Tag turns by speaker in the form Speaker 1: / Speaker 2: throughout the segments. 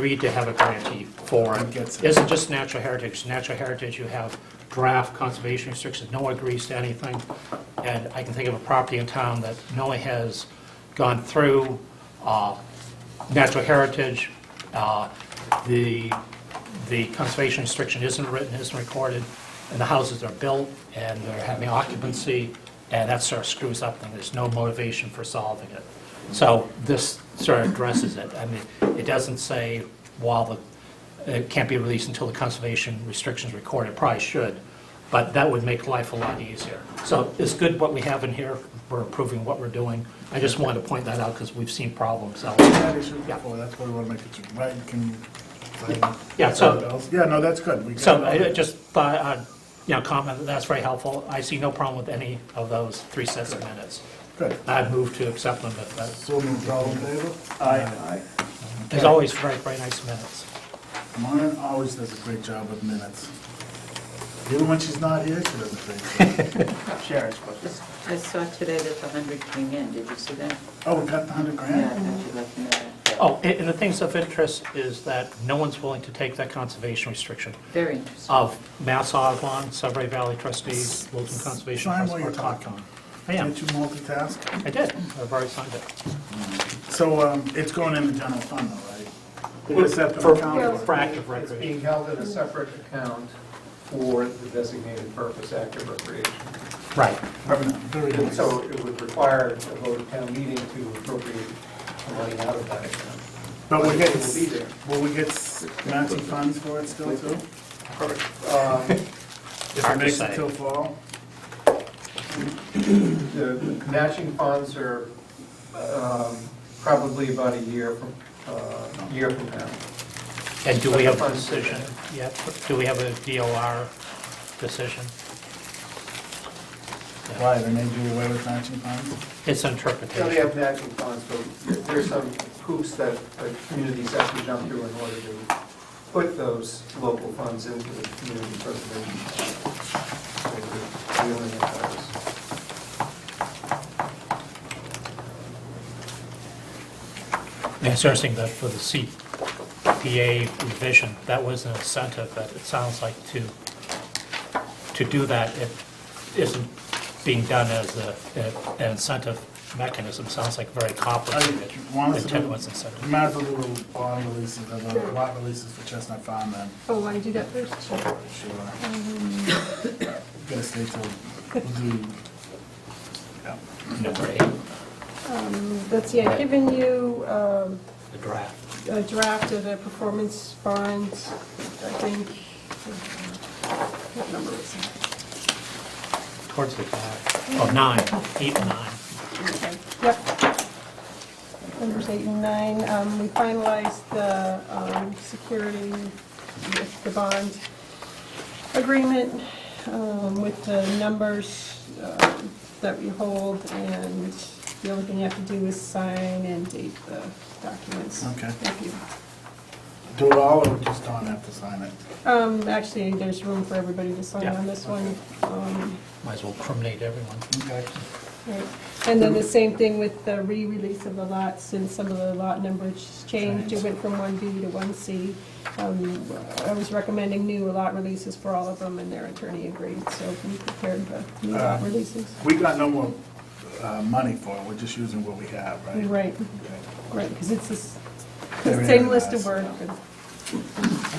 Speaker 1: agreed to have a grantee forum.
Speaker 2: Gets it.
Speaker 1: Isn't just natural heritage. Natural heritage, you have draft conservation restrictions, no one agrees to anything. And I can think of a property in town that no one has gone through uh, natural heritage. uh, The, the conservation restriction isn't written, isn't recorded, and the houses are built, and they're having occupancy, and that sort of screws up things. There's no motivation for solving it. So this sort of addresses it. I mean, it doesn't say while the, it can't be released until the conservation restrictions recorded, It probably should, but that would make life a lot easier. So it's good what we have in here, we're approving what we're doing. I just wanted to point that out because we've seen problems out there.
Speaker 2: That issue before, Oh, that's why we want to make it, right, you can.
Speaker 1: Yeah, so-
Speaker 2: Yeah, no, that's good. We got-
Speaker 1: So I I just thought, uh, you know, comment that that's very helpful. I see no problem with any of those three sets of minutes.
Speaker 2: Good.
Speaker 1: I'd move to accept them, but that's,
Speaker 2: So moved, all in favor?
Speaker 3: Aye.
Speaker 1: there's always very, very nice minutes.
Speaker 2: Mona always does a great job with minutes. Even when she's not here, she does a great job.
Speaker 3: Sharon's question.
Speaker 4: I saw today that the hundred came in, did you see that?
Speaker 2: Oh, we got the hundred
Speaker 4: Yeah, I
Speaker 2: grand?
Speaker 4: thought you'd like to know that.
Speaker 1: Oh, and and the things of interest is that no one's willing to take that conservation restriction
Speaker 4: Very interesting.
Speaker 1: of Mass Audubon, Sudbury Valley trustees, Wilton Conservation
Speaker 2: Sign
Speaker 1: Trust.
Speaker 2: while you're talking.
Speaker 1: I am,
Speaker 2: Can't you multitask?
Speaker 1: I did, I've already signed it.
Speaker 2: So, um, it's going in the general fund though, right? It's set for
Speaker 1: For-
Speaker 2: account.
Speaker 1: For active
Speaker 5: It's
Speaker 1: recreation.
Speaker 5: being held in a separate account for the designated purpose, active recreation.
Speaker 1: Right.
Speaker 2: Very
Speaker 5: And
Speaker 2: nice.
Speaker 5: so it would require a vote of town meeting to appropriate the money out of that account.
Speaker 2: But we get,
Speaker 5: It will be there.
Speaker 2: will we get s- matching funds for it still too? Uh,
Speaker 5: Um,
Speaker 2: If it
Speaker 1: Hard to
Speaker 2: makes it
Speaker 1: say.
Speaker 2: till fall?
Speaker 5: The matching funds are um, probably about a year from, uh, year from now.
Speaker 1: And do we have a decision yet? Do we have a DOR decision?
Speaker 2: Why, they may do away with matching funds?
Speaker 1: It's
Speaker 5: So they
Speaker 1: interpretation.
Speaker 5: have matching funds, but there's some hoops that the communities have to jump through in order to put those local funds into the community preservation. fund. So we're dealing with
Speaker 1: Yeah, It's interesting that for the CPA revision, that was an incentive, but it sounds like to, to do that, it isn't being done as a, an incentive mechanism, sounds like very complicated.
Speaker 2: Want us to
Speaker 1: Intent
Speaker 2: do-
Speaker 1: was incentive.
Speaker 2: Might as well do little bond releases, uh, little lot releases for Chestnut Farm then,
Speaker 6: Oh, want to do that first? Sure.
Speaker 2: sure.
Speaker 1: Mm-hmm.
Speaker 2: Gotta stay till, we'll do, yeah.
Speaker 1: Number eight,
Speaker 6: Um, Let's see, I've given you um,
Speaker 1: the draft.
Speaker 6: a draft of a performance bond, I think. What number is it?
Speaker 1: Towards the back, oh, nine, eight and nine.
Speaker 6: Yep. Numbers eight and nine. Um, We finalized the um, security, with the bond agreement um, with the numbers um, that we hold, and the only thing you have to do is sign and date the documents.
Speaker 2: Okay.
Speaker 6: If you-
Speaker 2: Do it all or just don't have to sign it?
Speaker 6: Um, Actually, there's room for everybody to sign on this one. Um,
Speaker 1: Might as well criminate everyone.
Speaker 2: Okay.
Speaker 6: Right. And then the same thing with the re-release of the lots, since some of the lot numbers changed, it went from one B to one C. Um, I was recommending new lot releases for all of them, and their attorney agreed, so we prepared the new lot
Speaker 2: Uh,
Speaker 6: releases.
Speaker 2: We got no more uh, money for it, we're just using what we have, right?
Speaker 6: Right,
Speaker 2: Okay.
Speaker 6: right, because it's this- the
Speaker 2: Everything
Speaker 6: same list
Speaker 2: else.
Speaker 6: of words.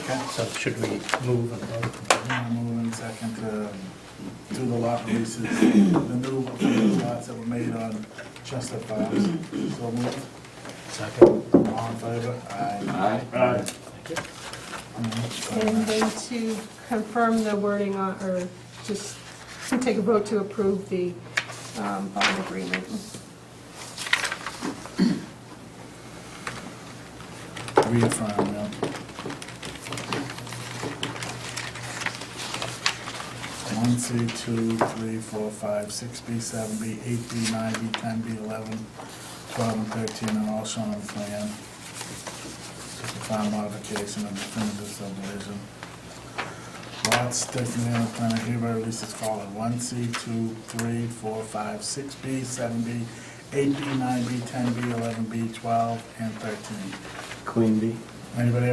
Speaker 2: Okay.
Speaker 1: So should we move and vote?
Speaker 2: Now Move in second to do the lot releases, the new the new lots that were made on Chestnut Farms. So move,
Speaker 1: Second.
Speaker 2: all in favor? Aye. Aye.
Speaker 6: And then to confirm the wording on, or just to take a vote to approve the um, bond agreement.
Speaker 2: Reaffirm, yeah. One C, two, three, four, five, six B, seven B, eight B, nine B, ten B, eleven, twelve, and thirteen are all shown on the plan. Just a final modification of definitive subdivision. Lots designated on the plan are hereby released as follows. One C, two, three, four, five, six B, seven B, eight B, nine B, ten B, eleven B, twelve, and thirteen.
Speaker 3: Queen bee.
Speaker 2: Anybody